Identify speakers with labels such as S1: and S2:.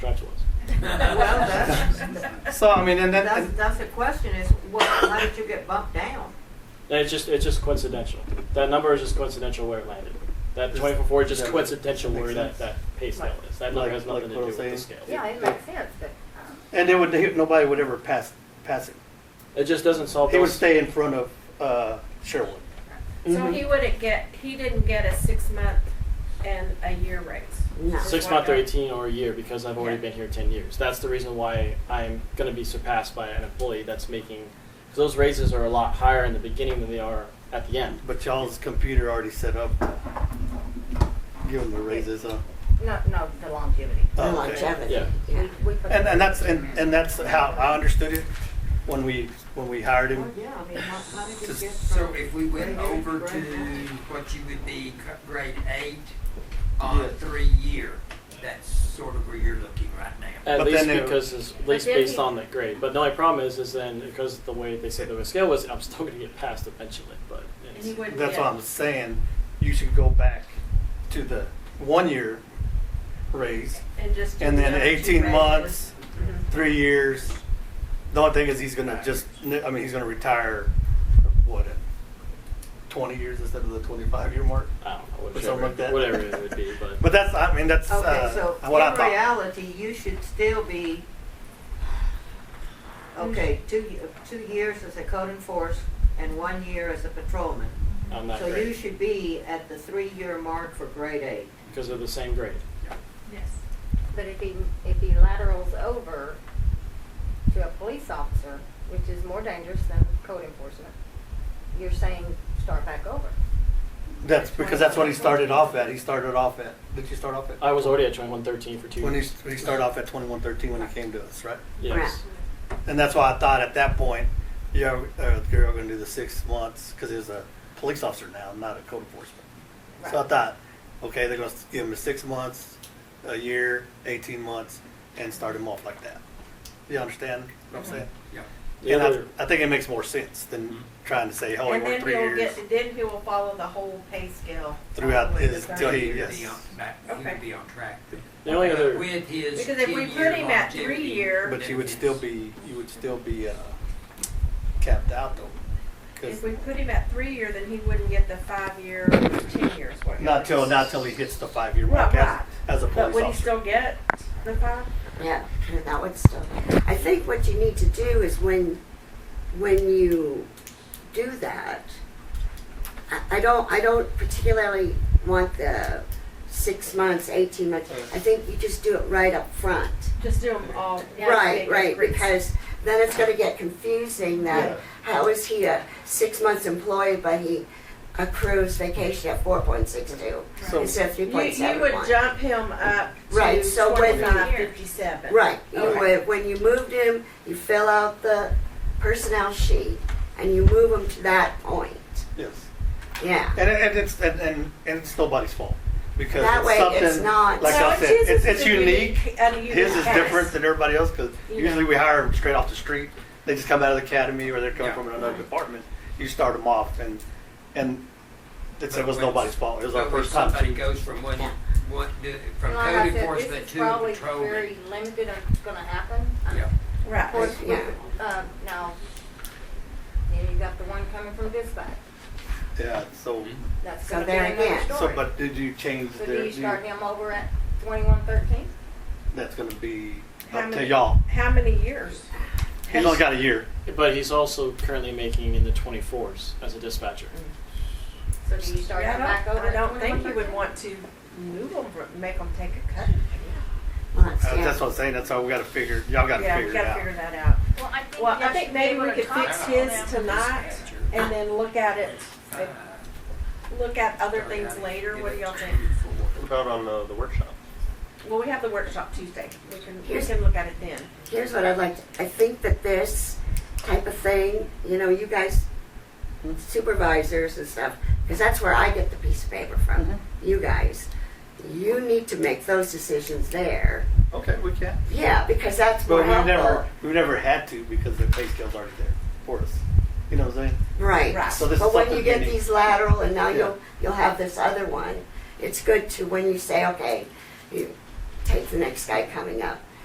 S1: all. I mean, and then
S2: That's,
S1: and-
S2: that's the question is, what, how did you get bumped down?
S3: It's just it's just coincidental. That number is just coincidental where it landed. That
S1: Just-
S3: twenty four four is just
S1: yeah,
S3: coincidental
S1: makes
S3: where
S1: sense.
S3: that, that pay scale is. That number
S4: Like-
S3: has
S4: like
S3: nothing to do
S4: what I'm
S3: with the
S4: saying.
S3: scale.
S5: Yeah, it makes sense, but, um,
S4: And they would they, nobody would ever pass pass it.
S3: It just doesn't solve
S4: He would
S3: those.
S4: stay in front of uh, Sherwood.
S3: Mm-hmm.
S6: So he wouldn't get, he didn't get a six month and a year raise.
S2: No.
S3: Six month or eighteen or a year because I've already been here ten years. That's the reason why I'm going to be surpassed by an employee that's making. Because those raises are a lot higher in the beginning than they are at the end.
S4: But y'all's computer already set up. to Give them the raises, huh?
S5: no, no, the longevity.
S4: Oh, okay.
S2: longevity.
S3: Yeah.
S5: We- we put
S4: And,
S5: that-
S4: and that's and, and that's how I understood it when we when we hired
S2: Well,
S4: him.
S2: Oh, yeah, I mean, how, how did you
S4: Just-
S2: get from?
S7: So if we went
S2: grade eight
S7: over
S2: grade
S7: to
S2: nine?
S7: what you would be cu- grade eight on
S4: Yeah.
S7: three year, that's sort of where you're looking right now.
S3: At
S4: But
S3: least
S4: then it-
S3: because it's at
S6: But
S3: least
S6: then
S3: based
S6: he-
S3: on the grade. But the only problem is is then because the way they said the scale was, I'm still going to get passed eventually. But
S6: And
S3: it's,
S6: he wouldn't
S4: That's
S6: get-
S4: what I'm saying. You should go back to the one year raise,
S6: And just. do
S4: and then
S6: the other two
S4: 18
S6: raises.
S4: months,
S6: Mhm.
S4: three years. The only thing is he's gonna just I mean he's gonna retire what at 20 years instead of the 25 year mark.
S3: I don't know,
S4: Or
S3: whatever,
S4: something like that.
S3: whatever it would be. But
S4: But that's I mean that's
S2: Okay, so
S4: uh, what I
S2: in
S4: thought.
S2: reality, you should still be, okay, two, y- two years as a code enforce and one year as a patrolman.
S3: on that
S2: So you
S3: grade
S2: should be at the three-year mark for grade eight.
S3: because of the same grade.
S5: But if he, if he laterals over to a police officer, which is more dangerous than code enforcement, you're saying start back over.
S4: That's because that's what he started off at. He started off at. Did you start off at?
S3: I was already at 2113 for two
S4: When he,
S3: years.
S4: when he started off at 2113 when he came to us, right? Oh,
S3: Yes.
S4: And that's why I thought at that point, yeah, uh, you're going to do the six months because he's a police officer now, not a code enforcement. So I
S5: Right.
S4: thought, okay, they're going to give him six months, a year, 18 months, and start him off like that. You understand what
S2: Mm-hmm.
S4: I'm saying?
S7: Yeah.
S3: The
S4: and
S3: other-
S4: I, I think it makes more sense than trying to say, oh, he
S6: And
S4: worked
S6: then
S4: three
S6: he'll
S4: years
S6: get, then he will follow the whole pay scale.
S4: throughout his till
S6: Because
S4: he
S7: He would
S4: yes.
S7: be on, back- he
S6: Okay.
S7: would be on track. then.
S3: The only other-
S7: With his
S6: if we
S7: ten-year
S6: put him at
S7: longevity
S6: three year.
S4: But you would still
S7: benefits.
S4: be, you would still be uh, capped out though. 'cause
S6: If we put him at three year, then he wouldn't get the five year, or ten years, whatever.
S4: Not till, not till he hits the five-year mark
S6: Right,
S4: as,
S6: right.
S4: as a
S6: But
S4: police
S6: would he still
S4: officer.
S6: get the five?
S8: Yeah, that would still. I think what you need to do is when, when you do that, I, I don't, I don't particularly want the six months, eighteen months. I think you just do it right up front.
S6: Just do them all. now to
S8: Right,
S6: make
S8: right,
S6: it-
S8: because then it's gonna get confusing
S4: Yeah.
S8: that, how is he a six months employee, but he accrues vacation at four point six two
S4: So-
S8: instead of three
S6: You,
S8: point
S6: you
S8: seven
S6: would
S8: one?
S6: jump him up
S8: Right,
S6: to
S8: so when-
S6: twenty-five fifty-seven.
S8: Right, you
S6: Okay.
S8: would, when you moved him, you fill out the personnel sheet and you move him to that point,
S4: Yes,
S8: yeah.
S4: and, and it's, and, and, and it's nobody's fault, because
S8: That way
S4: it's
S8: it's
S4: something,
S8: not-
S4: like
S6: No,
S4: I
S6: it's
S4: said,
S6: his
S4: it's,
S6: is
S4: it's
S6: a
S4: unique.
S6: and unique
S4: His is
S6: case.
S4: different than everybody else, because usually we hire them straight off the street. They just come out of the academy or they're coming
S7: Yeah.
S4: from another department. You start them off and, and it's, it was
S7: But when-
S4: nobody's fault. It was our
S7: but when
S4: first time.
S7: Somebody
S4: shooting.
S7: goes from one, one, do- from
S5: And like I
S7: code
S5: said, this
S7: enforcement
S5: is
S7: to
S5: probably
S7: patrolman.
S5: Very limited on what's gonna happen. I mean,
S7: Yeah.
S5: Of
S6: Right.
S5: course,
S8: Yeah.
S5: with, um, now, you know, you got the one coming from dispatch,
S4: Yeah, so,
S7: Mm-hmm.
S5: that's
S8: So
S5: gonna be
S8: there
S5: another
S8: again.
S5: story.
S4: so, but did you change
S5: So
S4: the?
S5: do you
S4: do you-
S5: start him over at twenty-one thirteen?
S4: That's gonna be
S6: How
S4: up to
S6: many-
S4: y'all.
S6: How many years?
S4: He's only got a year.
S3: But he's also currently making in the 24s as a dispatcher.
S5: So do you start
S6: Yeah,
S5: him
S6: I
S5: back
S6: don't,
S5: over
S6: I
S5: at
S6: don't think you would
S5: 21.13?
S6: want to move them, make them take a cut.
S8: Well, that's-
S4: Uh,
S8: yeah.
S4: That's what I'm saying. That's how we gotta figure, y'all gotta
S6: Yeah,
S4: figure
S6: we
S4: it
S6: gotta
S4: out.
S6: figure that out.
S5: Well, I think
S6: Well, I
S5: y'all
S6: think
S5: should be
S6: maybe
S5: able
S6: we
S5: to
S6: could fix
S5: talk
S6: his
S5: them.
S6: tonight and then look at it, look at
S7: Uh,
S6: other things later. What do y'all think?
S9: About on uh, the, the workshop.
S6: Well, we have the workshop Tuesday. We can, we
S8: Here's-
S6: can look at it then.
S8: Here's what I'd like, to- I think that this type of thing, you know, you guys supervisors and stuff, because that's where I get the piece of paper from, you guys. You need to make those decisions there,
S4: Okay, we can.
S8: yeah, because that's more
S4: But we've
S8: helpful.
S4: never, we've never had to because the pay scale's already there for us. You know what I'm saying?
S8: Right.
S6: Right.
S4: So this is
S8: But when you
S4: something
S8: get
S4: unique.
S8: these lateral and now
S4: Yeah.
S8: you'll, you'll have this other one, it's good to, when you say, okay, you take the next guy coming up,